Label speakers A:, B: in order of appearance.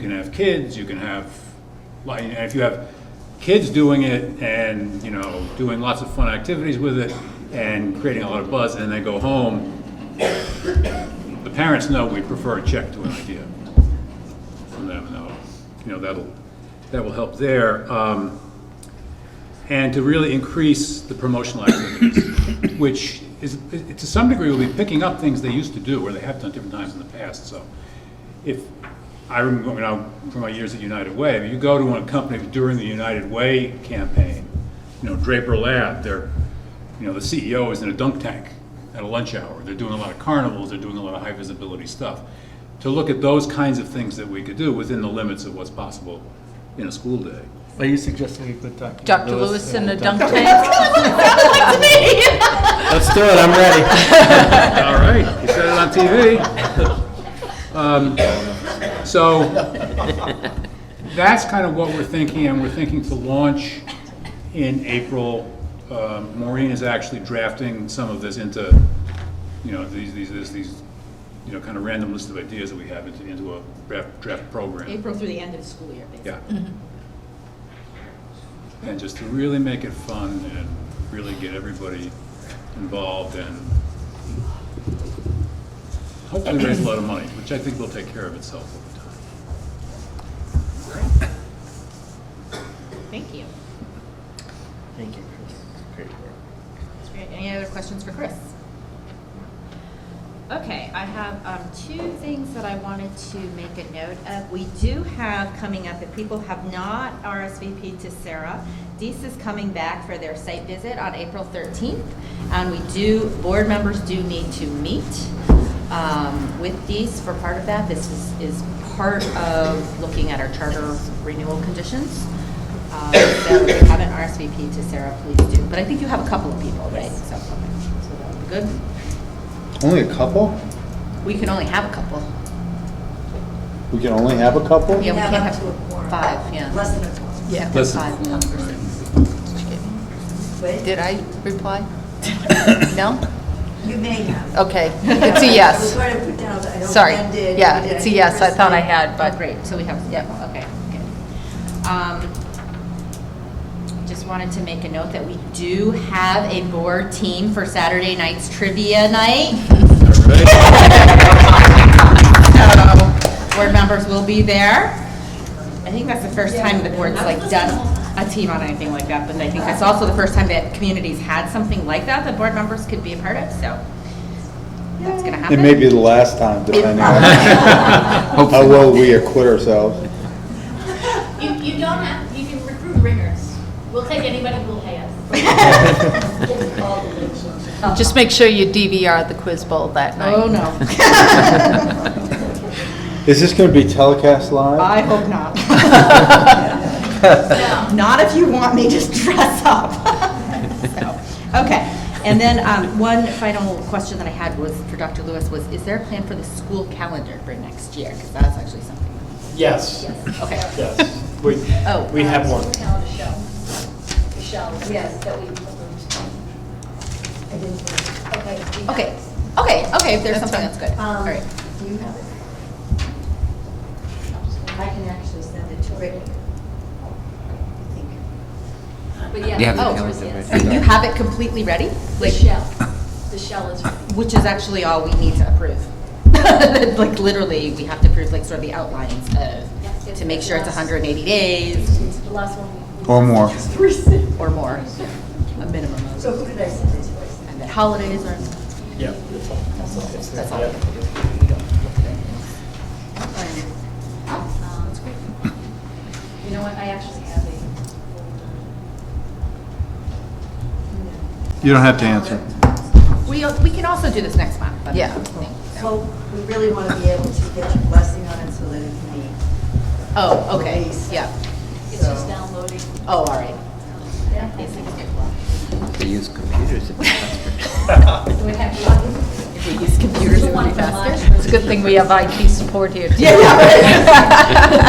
A: You can have kids, you can have, like, and if you have kids doing it and, you know, doing lots of fun activities with it and creating a lot of buzz, and they go home, the parents know we prefer a check to an idea from them, and that'll, you know, that'll, that will help there. Um, and to really increase the promotional activities, which is, it- to some degree, will be picking up things they used to do or they have done different times in the past, so. If, I remember, you know, from my years at United Way, if you go to one company during the United Way campaign, you know, Draper Lab, they're, you know, the CEO is in a dunk tank at a lunch hour, they're doing a lot of carnivals, they're doing a lot of high visibility stuff. To look at those kinds of things that we could do within the limits of what's possible in a school day.
B: Are you suggesting we put Dr.
C: Dr. Lewis in a
B: uh,
C: dunk tank.
B: Let's do it, I'm ready.
A: All right, you said it on TV. Um, So, that's kind of what we're thinking, and we're thinking to launch in April. Um, Maureen is actually drafting some of this into, you know, these, these, these- these, you know, kind of random list of ideas that we have into, into a draft, draft program.
D: April through the end of the school year, basically.
A: Yeah. And just to really make it fun and really get everybody involved and hopefully raise a lot of money, which I think will take care of itself over time.
D: Thank you.
B: Thank you, Chris. Great work.
D: That's great. Any other questions for Chris? Okay, I have um, two things that I wanted to make a note of. We do have coming up, if people have not RSVP'd to Sarah, Dees is coming back for their site visit on April 13th. And we do, board members do need to meet um, with Dees for part of that. This is, is part of looking at our charter renewal conditions. Um, So if you haven't RSVP'd to Sarah, please do. But I think you have a couple of people, right? So so that would be good.
E: Only a couple?
D: We can only have a couple.
E: We can only have a couple?
D: Yeah, we
F: have
D: can't
F: up
D: have
F: to a quorum.
D: five, yeah.
F: Less than a quorum.
C: Yeah.
A: Listen.
D: Five members.
F: But
C: Did I reply? No?
F: you may have.
C: Okay, it's a
F: I was
C: yes.
F: trying to put down, I don't
C: Sorry.
F: blend in.
C: Yeah,
F: Did
C: it's a yes, I thought I
F: press
C: had,
D: But
C: but
D: great, so we have, yeah, okay, good. Um, Just wanted to make a note that we do have a board team for Saturday night's trivia night. So, Board members will be there. I think that's the first time the board's like done a team on anything like that, but I think that's also the first time that communities had something like that that board members could be a part of, so that's gonna happen.
E: It may be the last time, depending on how well we acquit ourselves.
G: You, you don't have, you can recruit ringers. We'll take anybody who will pay us.
C: just make sure you DVR the quiz bowl that night.
D: Oh, no.
E: Is this gonna be telecast live?
D: I hope not. Not if you want me to dress up. So, Okay, and then um, one final question that I had was, for Dr. Lewis, was, is there a plan for the school calendar for next year? Because that's actually something,
B: Yes,
D: okay,
B: yes. We,
D: Oh.
B: we have one.
G: Michelle, Michelle, yes, that we approved.
F: I didn't-
G: Okay. we have-
D: okay, okay, okay, if there's something, that's good, all
F: Um,
D: right.
F: Do you have it? I can actually send it to Rick. I think.
G: But yeah.
H: You have the
G: oh,
H: calendar,
G: yes.
H: right?
D: You have it completely ready?
G: The
D: Like,
G: shell, the shell is,
D: Which is actually all we need to approve. Like, literally, we have to approve, like, sort of the outlines of, to make sure it's 180 days
G: it's the last one. we-
E: Or more?
D: or more, a minimum of.
F: So who did I send it to? I sent
D: And then holidays are.
B: Yeah.
D: That's all.
G: Um, You know what, I actually have a.
E: You don't have to answer.
D: We, we can also do this next month, but.
C: Yeah.
F: it. Well, we really want to be able to get your blessing on it so that it can be.
D: Oh, okay,
F: Release.
D: yeah.
G: It's
F: so-
G: just downloading.
D: Oh, all right.
G: Yeah. Basically.
H: They use computers.
G: Do we have one?
D: If we use computers, it would be faster.
C: It's a good thing we have IT support here, too.
D: Yeah, yeah, right. Oh,
G: Um,
D: Oh,